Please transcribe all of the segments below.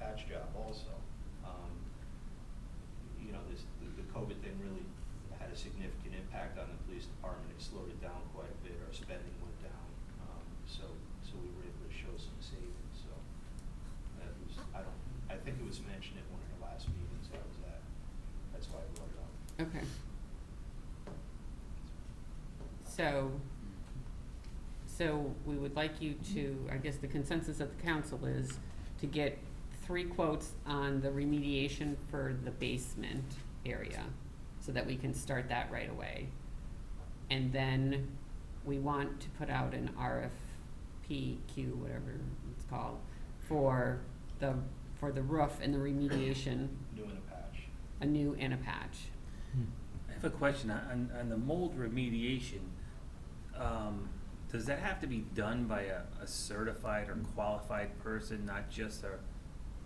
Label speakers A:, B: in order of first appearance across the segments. A: last job also. Um, You know, this, the- the COVID thing really had a significant impact on the police department. It slowed it down quite a bit, our spending went down. Um, So, so we were able to show some savings, so that was, I don't, I think it was mentioned at one of the last meetings I was at. That's why I brought it up.
B: Okay. So, so we would like you to, I guess the consensus of the council is to get three quotes on the remediation for the basement area, so that we can start that right away. And then we want to put out an RFPQ, whatever it's called, for the, for the roof and the remediation,
A: New in a patch.
B: a new and a patch.
C: I have a question on, on the mold remediation. Um, does that have to be done by a, a certified or qualified person, not just a,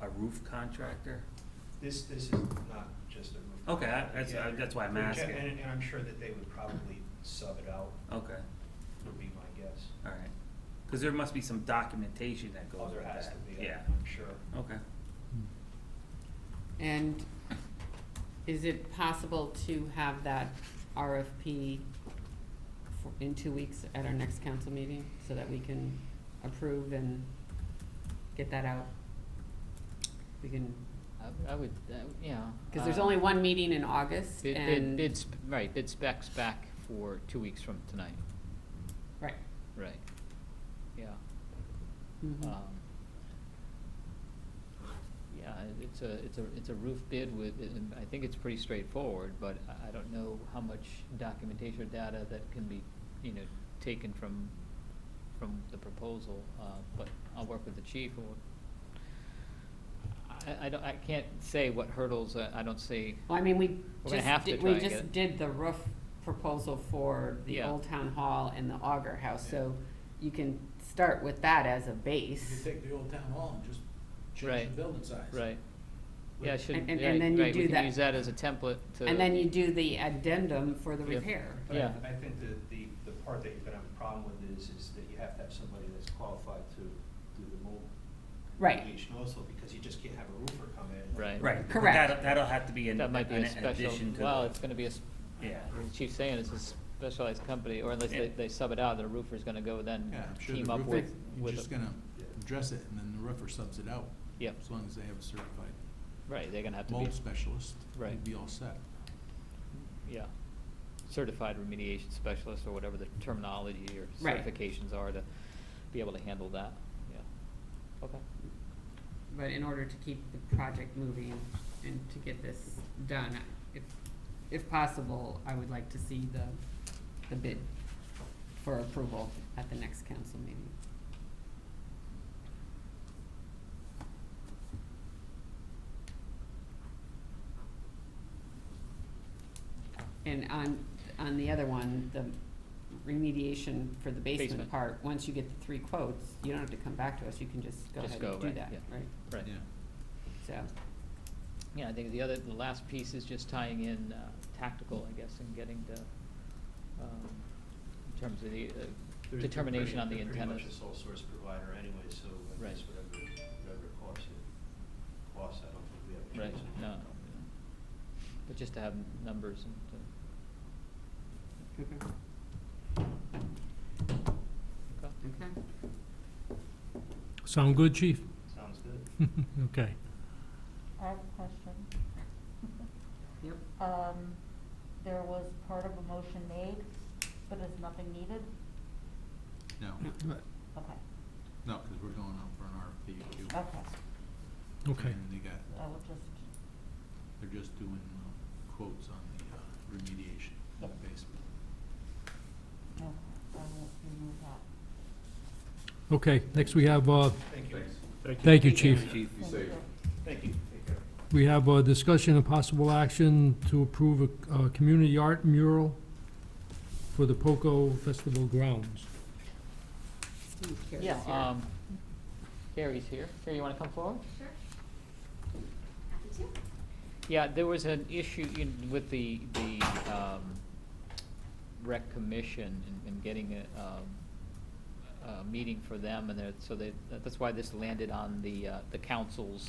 C: a roof contractor?
A: This, this is not just a roof.
C: Okay, I- that's-
A: Yeah,
C: I- that's why I'm
A: we're ge-
C: asking.
A: And, and I'm sure that they would probably sub it out,
C: Okay,
A: would be my guess.
C: all right. Cause there must be some documentation that Uh, goes
A: Oh,
C: with
A: there has to
C: that.
A: be,
C: Yeah,
A: I'm I'm sure.
C: okay.
B: And is it possible to have that RFP for- in two weeks at our next council meeting so that we can approve and get that out? We can,
D: I- I would, uh, yeah.
B: because there's
D: uh,
B: only one meeting in August
D: Bid, bid,
B: and,
D: bid sp- right, bid specs back for two weeks from tonight,
B: right.
D: right. Yeah.
B: mhm.
D: um, Yeah, it- it's a, it's a, it's a roof bid with, it- and I think it's pretty straightforward, but I, I don't know how much documentation or data that can be, you know, taken from, from the proposal, uh, but I'll work with the chief or. I, I don't, I can't say what hurdles, I, I don't see,
B: Well, I mean, we
D: We're gonna
B: just,
D: have to
B: did-
D: try
B: we
D: and get
B: just
D: it.
B: did the roof proposal for the
D: Yeah.
B: Old Town Hall and the Auger House,
E: Yeah.
B: so you can start with that as a base.
E: You could take the old town hall and just change
D: Right.
E: the building size.
D: right. Yeah, should,
B: and- and then
D: right,
B: you
D: right,
B: do
D: we
B: that.
D: can use that as a template to.
B: And then you do the addendum for the
D: Yep.
B: repair.
A: But
D: Yeah.
A: I, I think that the, the part that you're gonna have a problem with is, is that you have to have somebody that's qualified to do the mold.
B: Right,
A: remediation Also, because you just can't have a roofer come in.
D: Right.
C: Right, but
B: Correct.
C: that'll, that'll have to be an,
D: That
C: an
D: might be a special,
C: addition to the.
D: well, it's gonna be a, s-
C: Yeah.
D: the chief's saying it's a specialized company, or unless they,
C: Yeah.
D: they sub it out, the roofer's gonna go then
E: Yeah, I'm sure
D: team
E: the
D: up
E: roofer,
D: with,
E: you're
D: with,
E: just
D: a-
E: gonna address it and then the roofer subs it out.
D: Yep.
E: As long as they have a certified
D: right, they're gonna have to be,
E: mold specialist,
D: Right.
E: you'd be all set.
D: yeah. Certified remediation specialist, or whatever the terminology or
B: Right.
D: certifications are to be able to handle that, yeah. Okay,
B: but in order to keep the project moving and to get this done, if, if possible, I would like to see the, the bid for approval at the next council meeting. And on, on the other one, the remediation for the basement
D: Basement.
B: part, once you get the three quotes, you don't have to come back to us, you can just go
D: Just
B: ahead
D: go,
B: and do
D: right,
B: that,
D: yeah.
B: right?
D: right.
E: Yeah.
B: So,
D: Yeah, I think the other, the last piece is just tying in uh, tactical, I guess, and getting to, um, in terms of the uh,
A: They're- they're
D: determination
A: pretty-
D: on the
A: they're
D: antennas.
A: Pretty much a sole source provider anyway, so I
D: Right.
A: guess whatever, whatever it costs, it costs, I don't think we have a
D: Right,
A: choice.
D: no, no, but just to have numbers and to,
B: okay,
D: okay.
B: okay.
F: Sound good, chief?
A: Sounds good.
F: Okay.
G: I have a question.
B: Yep.
G: Um, there was part of a motion made, but is nothing needed?
E: No,
G: Okay,
E: no, because we're going out for an RFP too.
G: okay,
F: Okay.
E: And they got,
G: I will just,
E: they're just doing uh, quotes on the uh, remediation in the basement.
G: okay, I will remove that.
F: Okay, next we have, uh,
A: Thank you.
F: thank you, chief.
C: Chief.
G: Thank you.
A: Thank you. Take care.
F: We have a discussion and possible action to approve a, a community art mural for the Poco Festival grounds.
B: Steve Carey's
D: Yeah,
B: here.
D: um, Carrie's here. Carrie, you wanna come forward?
H: Sure. Happy to.
D: Yeah, there was an issue in, with the, the, um, rec commission and, and getting a, um, a meeting for them and they're, so they, that's why this landed on the, uh, the council's